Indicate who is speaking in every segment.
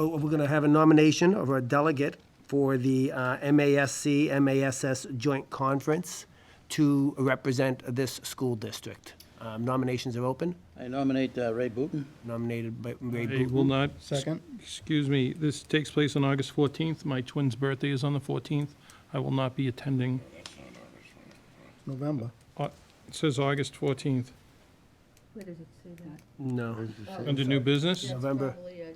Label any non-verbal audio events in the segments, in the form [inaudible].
Speaker 1: oh, we're going to have a nomination of our delegate for the uh, MASC, MASS Joint Conference to represent this school district. Um, Nominations are open,
Speaker 2: I nominate uh, Ray Booton.
Speaker 1: nominated by Ray
Speaker 3: I will
Speaker 1: Booton.
Speaker 3: not.
Speaker 4: Second.
Speaker 3: Excuse me, this takes place on August 14th. My twin's birthday is on the 14th. I will not be attending.
Speaker 4: November.
Speaker 3: Au- It says August 14th.
Speaker 5: Where does it say that?
Speaker 1: No,
Speaker 3: Under new business?
Speaker 1: November,
Speaker 5: Probably, uh,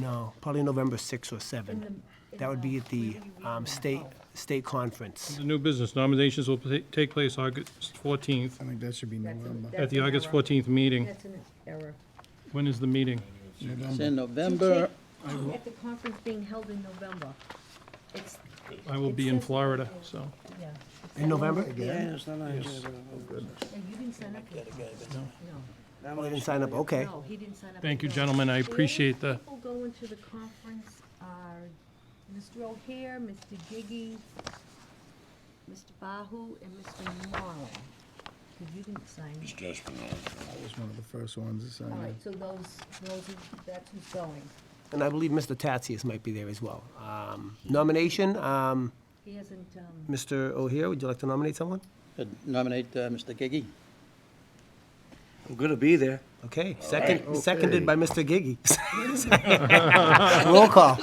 Speaker 1: no, probably November 6 or 7.
Speaker 5: in the-
Speaker 1: That would be at the
Speaker 5: Where do you
Speaker 1: um,
Speaker 5: read
Speaker 1: state, state conference.
Speaker 3: The new business nominations will ta- take place August 14th,
Speaker 4: I think that should be
Speaker 5: That's a-
Speaker 4: November.
Speaker 3: at
Speaker 5: That's
Speaker 3: the
Speaker 5: an
Speaker 3: August
Speaker 5: error.
Speaker 3: 14th meeting.
Speaker 5: That's an error.
Speaker 3: When is the meeting?
Speaker 2: It's
Speaker 4: November.
Speaker 2: in November.
Speaker 5: At the conference being held in November. It's,
Speaker 3: I will be in Florida, so.
Speaker 5: yeah.
Speaker 1: In November?
Speaker 2: Yeah, it's not on here, but- uh,
Speaker 5: And you didn't sign up for that. No,
Speaker 1: Oh, they didn't sign up, okay.
Speaker 5: no, he didn't sign up.
Speaker 3: Thank
Speaker 5: for
Speaker 3: you,
Speaker 5: that.
Speaker 3: gentlemen. I
Speaker 5: The only
Speaker 3: appreciate that.
Speaker 5: People going to the conference are Mr. O'Hare, Mr. Giggy, Mr. Bahu, and Mr. Marlin. Because you didn't sign up.
Speaker 4: That was one of the first ones to sign
Speaker 5: All
Speaker 4: up.
Speaker 5: right, so those, those, are- that's who's going.
Speaker 1: And I believe Mr. Tatsias might be there as well. Um, Nomination, um,
Speaker 5: He hasn't, um,
Speaker 1: Mr. O'Hare, would you like to nominate someone?
Speaker 2: Uh, Nominate uh, Mr. Gigi.
Speaker 6: I'm gonna be there.
Speaker 1: Okay, second, seconded by Mr.
Speaker 2: [laughs]
Speaker 1: Giggy. Roll call.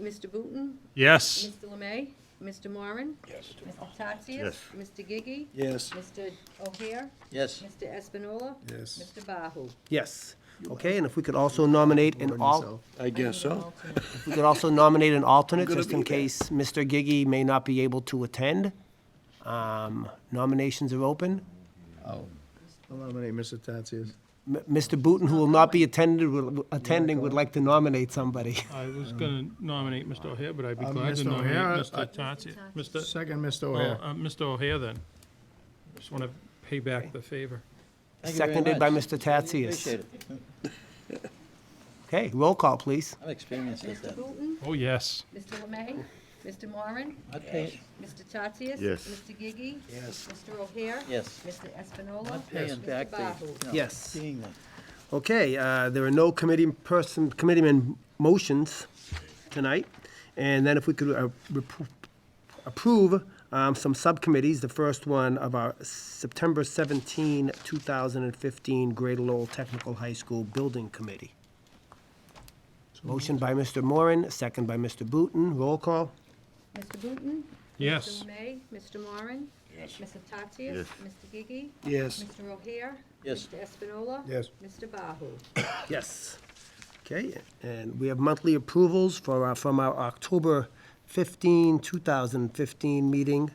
Speaker 5: Mr. Booton,
Speaker 3: Yes.
Speaker 5: Mr. Lemay, Mr. Moran. Yes. Mr. Tatsias.
Speaker 6: Yes.
Speaker 5: Mr. Gigi.
Speaker 2: Yes.
Speaker 5: Mr. O'Hare,
Speaker 2: Yes.
Speaker 5: Mr. Espinola.
Speaker 4: Yes.
Speaker 5: Mr. Bahu.
Speaker 1: Yes. Okay, and if we could also nominate an
Speaker 4: Warn
Speaker 1: al,
Speaker 4: yourself.
Speaker 6: I guess so.
Speaker 5: Alternate.
Speaker 1: if we could also nominate an alternate, just in case Mr. Giggy may not be able to attend. Um, Nominations are open.
Speaker 4: I'll nominate Mr. Tatsias.
Speaker 1: M- Mr. Booton, who will not be attended, will- attending, would like to nominate somebody.
Speaker 3: I was going to nominate Mr. O'Hare, but I'd be
Speaker 4: Uh,
Speaker 3: glad to
Speaker 4: Mr. O'Hare,
Speaker 3: nominate
Speaker 4: I-
Speaker 3: Mr. Tatsias. Mr.
Speaker 4: Second, Mr.
Speaker 3: Well,
Speaker 4: O'Hare.
Speaker 3: uh, Mr. O'Hare then. Just want to pay back the favor.
Speaker 2: Thank you very
Speaker 1: Seconded by
Speaker 2: much.
Speaker 1: Mr. Tatsias.
Speaker 2: Appreciate it.
Speaker 1: Okay, roll call, please.
Speaker 2: I'm experienced at
Speaker 5: Mr.
Speaker 2: that.
Speaker 5: Booton,
Speaker 3: Oh, yes.
Speaker 5: Mr. Lemay, Mr. Moran,
Speaker 2: I'd pay,
Speaker 5: Mr. Tatsias.
Speaker 6: Yes.
Speaker 5: Mr. Gigi.
Speaker 2: Yes.
Speaker 5: Mr. O'Hare.
Speaker 2: yes,
Speaker 5: Mr. Espinola.
Speaker 2: Not paying back
Speaker 5: Mr.
Speaker 2: the,
Speaker 5: Bahu.
Speaker 2: you know,
Speaker 1: Yes.
Speaker 2: being there.
Speaker 1: Okay, uh, there are no committee person, committeeman motions tonight. And then if we could uh, repro- approve um, some subcommittees, the first one of our September 17, 2015 Greater Lowell Technical High School Building Committee. Motion by Mr. Moran, second by Mr. Booton. Roll call.
Speaker 5: Mr. Booton.
Speaker 3: Yes.
Speaker 5: Mr. Lemay, Mr. Moran. Yes. Mr. Tatsias.
Speaker 6: Yes.
Speaker 5: Mr. Gigi.
Speaker 4: Yes.
Speaker 5: Mr. O'Hare.
Speaker 2: Yes.
Speaker 5: Mr. Espinola.
Speaker 4: Yes.
Speaker 5: Mr. Bahu.
Speaker 1: Yes. Okay, and we have monthly approvals for, our- from our October 15, 2015 meeting.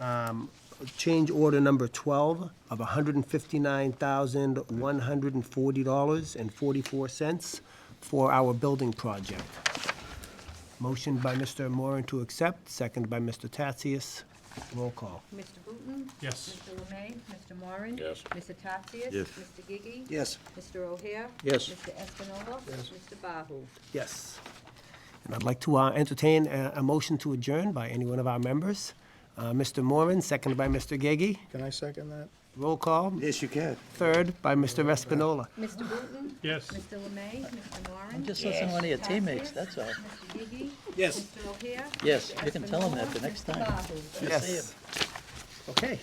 Speaker 1: Um, Change order number 12 of $159,140.44 for our building project. Motion by Mr. Moran to accept, second by Mr. Tatsias. Roll call.
Speaker 5: Mr. Booton.
Speaker 3: Yes.
Speaker 5: Mr. Lemay, Mr. Moran. Yes. Mr. Tatsias.
Speaker 6: Yes.
Speaker 5: Mr. Gigi.
Speaker 2: Yes.
Speaker 5: Mr. O'Hare.
Speaker 2: Yes.
Speaker 5: Mr. Espinola. Yes. Mr. Bahu.
Speaker 1: Yes. And I'd like to uh, entertain a, a motion to adjourn by any one of our members. Uh, Mr. Moran, seconded by Mr. Gagey.
Speaker 4: Can I second that?
Speaker 1: Roll call,
Speaker 6: Yes, you can.
Speaker 1: third by Mr. Espinola.
Speaker 5: Mr. Booton.
Speaker 3: Yes.
Speaker 5: Mr. Lemay, Mr. Moran.
Speaker 2: I'm just listening to one of your teammates, that's all.
Speaker 5: Mr. Gigi.
Speaker 1: Yes.
Speaker 5: Mr. O'Hare.
Speaker 2: Yes,
Speaker 5: Mr.
Speaker 2: you can tell 'em
Speaker 5: Espinola,
Speaker 2: that the next
Speaker 5: Mr.
Speaker 2: time.
Speaker 5: Bahu.
Speaker 2: Yes.
Speaker 1: Okay.